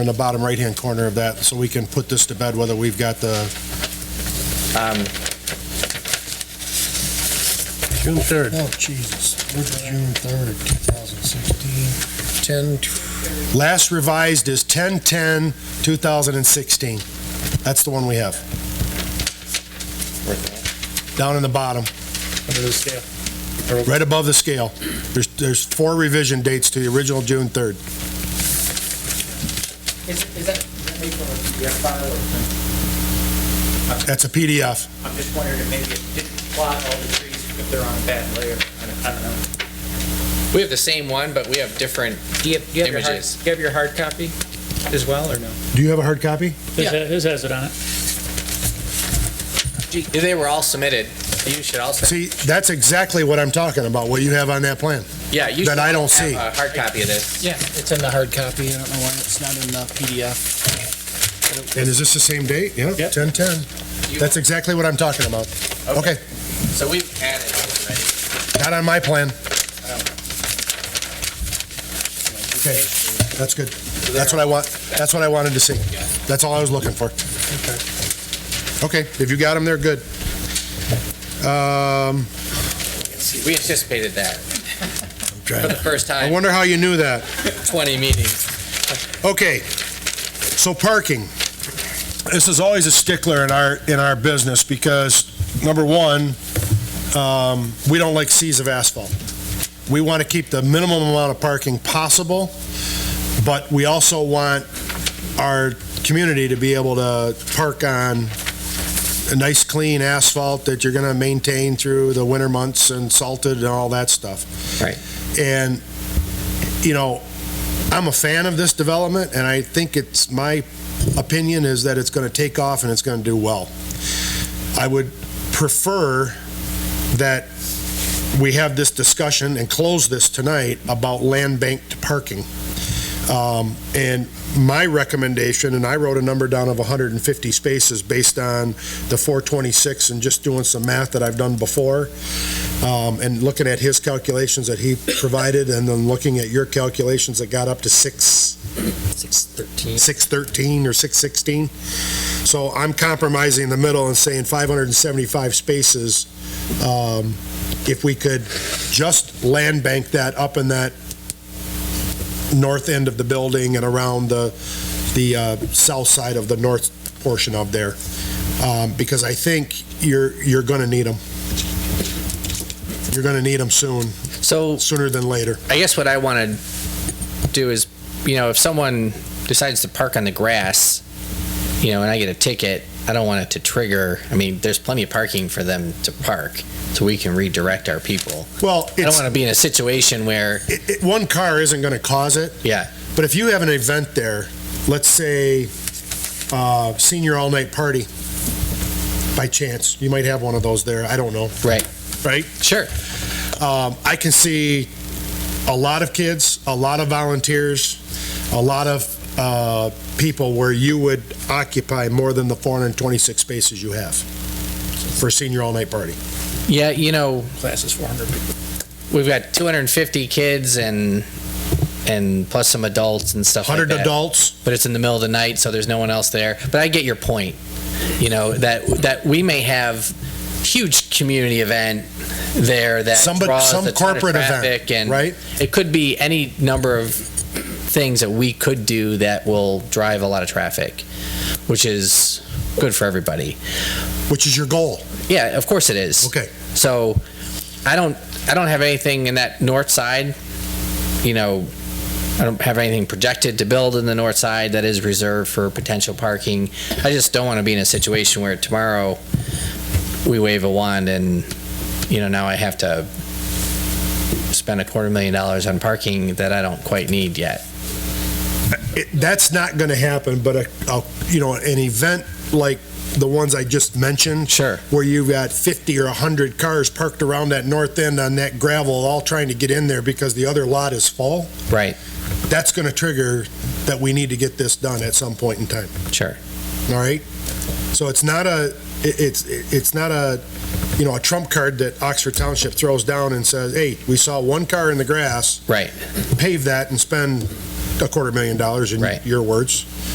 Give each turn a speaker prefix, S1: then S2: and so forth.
S1: in the bottom right-hand corner of that, so we can put this to bed, whether we've got the,
S2: Um,
S3: June 3rd.
S4: Oh, Jesus. What's June 3rd, 2016? 10,
S1: last revised is 10/10/2016. That's the one we have, down in the bottom,
S3: Under the staff.
S1: right above the scale. There's, there's four revision dates to the original June 3rd.
S5: Is, is that made from a PDF file or?
S1: That's a PDF.
S5: I'm just wondering if maybe it didn't plot all the trees, if they're on a bad layer. I don't- I don't know.
S2: We have the same one, but we have different
S5: Do you have, do you have your hard,
S2: Images.
S5: do you have your hard copy as well, or no?
S1: Do you have a hard copy?
S2: Yeah.
S6: His has it on it.
S2: Gee, They were all submitted. You should also,
S1: See, that's exactly what I'm talking about, what you have on that plan.
S2: yeah, you
S1: That
S2: should
S1: I don't
S2: have
S1: see.
S2: a hard copy of this.
S4: yeah, it's in the hard copy. I don't know why it's not in the PDF.
S1: And is this the same date? Yeah,
S6: Yep.
S1: 10/10.
S2: You-
S1: That's exactly what I'm talking about. Okay,
S2: So we've added already.
S1: not on my plan. Okay, that's good. That's what I want, that's what I wanted to see. That's all I was looking for. Okay, if you got them, they're good. Um,
S2: We anticipated that for the first
S1: Um, I
S2: time,
S1: wonder how you knew that.
S2: 20 meetings.
S1: Okay, so parking. This is always a stickler in our, in our business because, number one, um, we don't like seas of asphalt. We want to keep the minimum amount of parking possible, but we also want our community to be able to park on a nice, clean asphalt that you're going to maintain through the winter months and salted and all that stuff.
S2: Right.
S1: And, you know, I'm a fan of this development, and I think it's, my opinion is that it's going to take off and it's going to do well. I would prefer that we have this discussion and close this tonight about land banked parking. Um, And my recommendation, and I wrote a number down of 150 spaces based on the 426 and just doing some math that I've done before, um, and looking at his calculations that he provided, and then looking at your calculations that got up to six,
S2: 613.
S1: 613 or 616. So I'm compromising the middle and saying 575 spaces. Um, If we could just land bank that up in that north end of the building and around the, the uh, south side of the north portion of there. Um, Because I think you're, you're going to need them. You're going to need them soon,
S2: So
S1: sooner than later.
S2: I guess what I want to do is, you know, if someone decides to park on the grass, you know, and I get a ticket, I don't want it to trigger, I mean, there's plenty of parking for them to park, so we can redirect our people.
S1: Well,
S2: I don't
S1: it's,
S2: want to be in a situation where,
S1: it- it- one car isn't going to cause it.
S2: yeah,
S1: But if you have an event there, let's say uh, senior all night party, by chance, you might have one of those there. I don't know.
S2: Right.
S1: Right.
S2: sure,
S1: Um, I can see a lot of kids, a lot of volunteers, a lot of uh, people where you would occupy more than the 426 spaces you have for a senior all night party.
S2: yeah, you know,
S6: Class is 400 people.
S2: we've got 250 kids and, and plus some adults and stuff like
S1: 100
S2: that.
S1: adults.
S2: but it's in the middle of the night, so there's no one else there. But I get your point. You know that that we may have huge community event there that
S1: Somebody-
S2: draws
S1: some
S2: a ton of
S1: corporate event,
S2: traffic, and
S1: right?
S2: It could be any number of things that we could do that will drive a lot of traffic, which is good for everybody.
S1: Which is your goal.
S2: Yeah, of course it is.
S1: Okay.
S2: So I don't I don't have anything in that north side. You know, I don't have anything projected to build in the north side that is reserved for potential parking. I just don't want to be in a situation where tomorrow we wave a wand and you know now I have to spend a quarter million dollars on parking that I don't quite need yet.
S1: it, that's not going to happen. But a, a, you know, an event like the ones I just mentioned,
S2: Sure.
S1: where you've got 50 or 100 cars parked around that north end on that gravel, all trying to get in there because the other lot is full.
S2: Right.
S1: That's going to trigger that we need to get this done at some point in time.
S2: Sure.
S1: All right. So it's not a, it- it's, it's not a, you know, a trump card that Oxford Township throws down and says, hey, we saw one car in the grass,
S2: Right.
S1: pave that and spend a quarter million dollars in
S2: Right.
S1: your words.